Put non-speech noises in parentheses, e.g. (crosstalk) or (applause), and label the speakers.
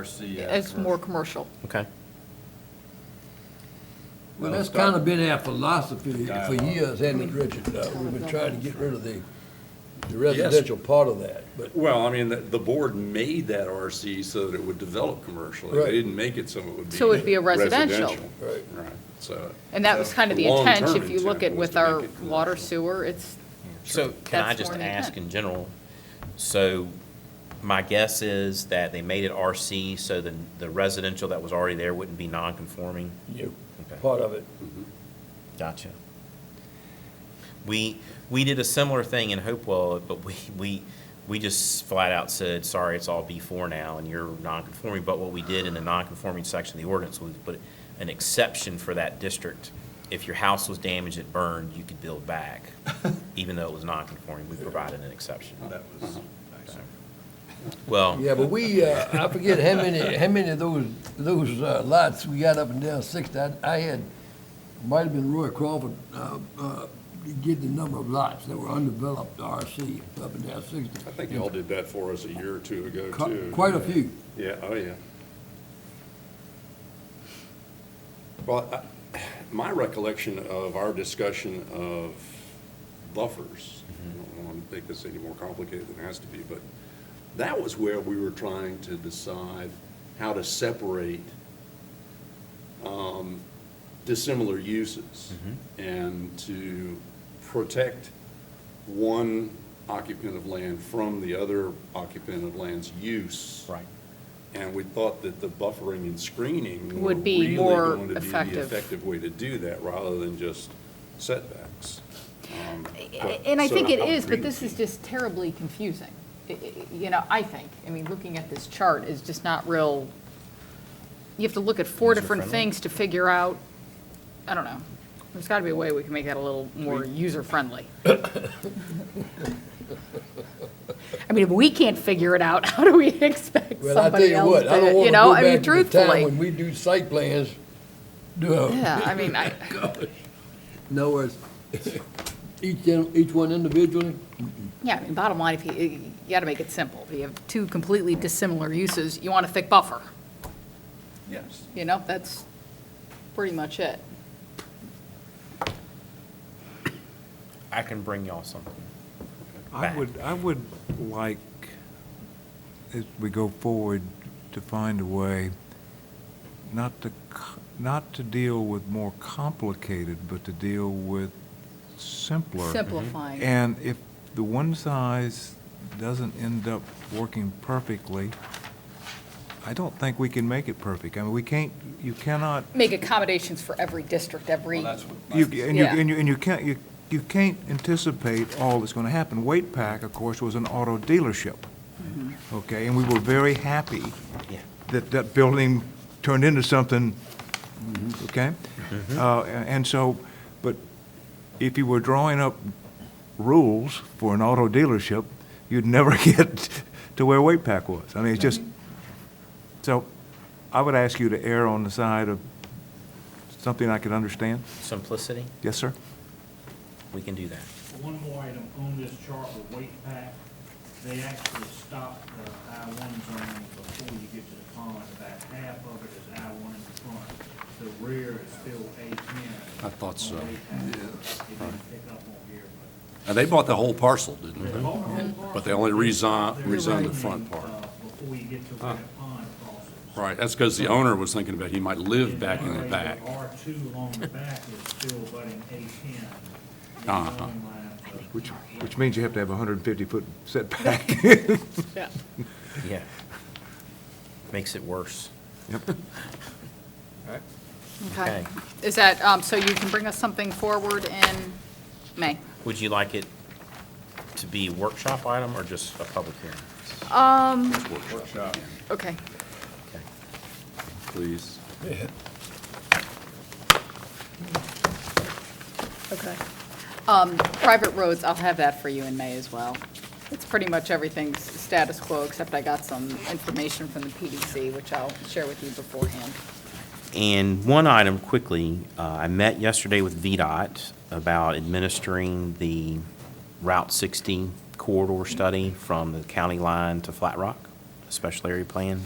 Speaker 1: RC. as
Speaker 2: It's more commercial.
Speaker 3: Okay.
Speaker 4: Well, that's kind of been our philosophy for
Speaker 1: Dialogue.
Speaker 4: years, hasn't it, Richard? Uh, We've been trying to get rid of the the residential part of that, but
Speaker 5: Well, I mean, the, the board made that RC so that it would develop commercially.
Speaker 4: Right.
Speaker 5: They didn't make it so it would be.
Speaker 2: So it'd be a residential.
Speaker 4: Right.
Speaker 5: Right, so.
Speaker 2: And that was kind of the
Speaker 5: long-term
Speaker 2: intent, if you look
Speaker 5: intent
Speaker 2: at
Speaker 5: was
Speaker 2: with
Speaker 5: to make
Speaker 2: our
Speaker 5: it commercial.
Speaker 2: water sewer, it's,
Speaker 3: So can I
Speaker 2: That's
Speaker 3: just
Speaker 2: more than
Speaker 3: ask
Speaker 2: ten.
Speaker 3: in general, so my guess is that they made it RC so the, the residential that was already there wouldn't be non-conforming?
Speaker 4: you
Speaker 3: Okay.
Speaker 4: part of it.
Speaker 3: Gotcha. We, we did a similar thing in Hopewell, but we, we, we just flat out said, sorry, it's all B4 now and you're non-conforming. But what we did in the non-conforming section of the ordinance was put an exception for that district. If your house was damaged, it burned, you could build back, (laughs) even though it was non-conforming. We provided an exception.
Speaker 1: That was nice.
Speaker 3: Well,
Speaker 4: Yeah, but we, uh, I forget how many, how many of those, those uh, lots we got up and down Sixth. I, I had, might have been Roy Crawford, uh, uh, to get the number of lots that were undeveloped RC up and down Sixth.
Speaker 5: I think y'all did that for us a year or two ago, too.
Speaker 4: Quite a few.
Speaker 5: Yeah, oh, yeah. Well, I- my recollection of our discussion of buffers, I don't want to make this any more complicated than it has to be, but that was where we were trying to decide how to separate um, dissimilar uses and to protect one occupant of land from the other occupant of land's use.
Speaker 3: right.
Speaker 5: And we thought that the buffering and screening were
Speaker 2: Would be
Speaker 5: really
Speaker 2: more
Speaker 5: going to be the
Speaker 2: effective.
Speaker 5: effective way to do that, rather than just setbacks. Um, but-
Speaker 2: and I
Speaker 5: so
Speaker 2: think it
Speaker 5: I'm
Speaker 2: is, but
Speaker 5: agreeing
Speaker 2: this
Speaker 5: with
Speaker 2: is
Speaker 5: you.
Speaker 2: just terribly confusing. I- I- You know, I think, I mean, looking at this chart is just not real, you have to look at four different
Speaker 3: User-friendly?
Speaker 2: things to figure out, I don't know. There's got to be a way we can make that a little more
Speaker 4: (laughs)
Speaker 2: user-friendly. I mean, if we can't figure it out, (laughs) how do we expect
Speaker 4: Well, I tell
Speaker 2: somebody
Speaker 4: you
Speaker 2: else
Speaker 4: what, I
Speaker 2: to,
Speaker 4: don't
Speaker 2: you
Speaker 4: want to
Speaker 2: know,
Speaker 4: go
Speaker 2: I mean,
Speaker 4: back to the time
Speaker 2: truthfully?
Speaker 4: when we do site plans, do,
Speaker 2: Yeah, I mean, I,
Speaker 4: in other words, each, in- each one individually,
Speaker 2: Yeah, I mean, bottom line, if you, you gotta make it simple. If you have two completely dissimilar uses, you want a thick buffer,
Speaker 5: Yes.
Speaker 2: you know, that's pretty much it.
Speaker 3: I can bring y'all something.
Speaker 6: I
Speaker 3: back.
Speaker 6: would, I would like, as we go forward, to find a way not to, c- not to deal with more complicated, but to deal with simpler.
Speaker 2: Simplifying.
Speaker 6: And if the one size doesn't end up working perfectly, I don't think we can make it perfect. I mean, we can't, you cannot
Speaker 2: Make accommodations for every district,
Speaker 1: Well,
Speaker 2: every,
Speaker 1: that's what.
Speaker 6: You,
Speaker 1: my-
Speaker 6: and you,
Speaker 2: Yeah.
Speaker 6: and you, and you can't, you, you can't anticipate all that's gonna happen. Waite Pack, of course, was an auto dealership, okay, and we were very happy
Speaker 3: Yeah.
Speaker 6: that that building turned into something, okay? Uh, a- and so, but if you were drawing up rules for an auto dealership, you'd never (laughs) get to where Waite Pack was. I mean, it's just, so I would ask you to err on the side of something I could understand.
Speaker 3: Simplicity,
Speaker 6: Yes, sir?
Speaker 3: we can do that.
Speaker 7: One more item on this chart with weight pack, they actually stopped the I one zone before you get to the pond. About half of it is I one in the front. The rear is still A ten.
Speaker 5: I thought so.
Speaker 7: It didn't pick up on here,
Speaker 5: And they bought the whole parcel, didn't
Speaker 7: but.
Speaker 5: they?
Speaker 7: The whole- whole
Speaker 5: Mm-hmm. But they only rezon,
Speaker 7: parcel,
Speaker 5: rezoned
Speaker 7: they're
Speaker 5: the front
Speaker 7: opening,
Speaker 5: part.
Speaker 7: uh, Before you get to where the pond crosses.
Speaker 5: Right, that's because the owner was thinking about he might live back in the back.
Speaker 7: R two along the back is still abutting A ten.
Speaker 5: Uh-huh.
Speaker 6: Which, which means you have to have a hundred and fifty-foot setback.
Speaker 2: yeah.
Speaker 3: Yeah. Makes it worse.
Speaker 2: Okay.
Speaker 3: Okay.
Speaker 2: Is that, um, so you can bring us something forward in May?
Speaker 3: Would you like it to be workshop item or just a public hearing?
Speaker 1: Workshop.
Speaker 2: Okay.
Speaker 3: Okay.
Speaker 5: Please.
Speaker 2: Okay. Um, private roads, I'll have that for you in May as well. It's pretty much everything's status quo, except I got some information from the PDC, which I'll share with you beforehand.
Speaker 3: And one item quickly, uh, I met yesterday with VDOT about administering the Route 60 corridor study from the county line to Flat Rock, a special area plan.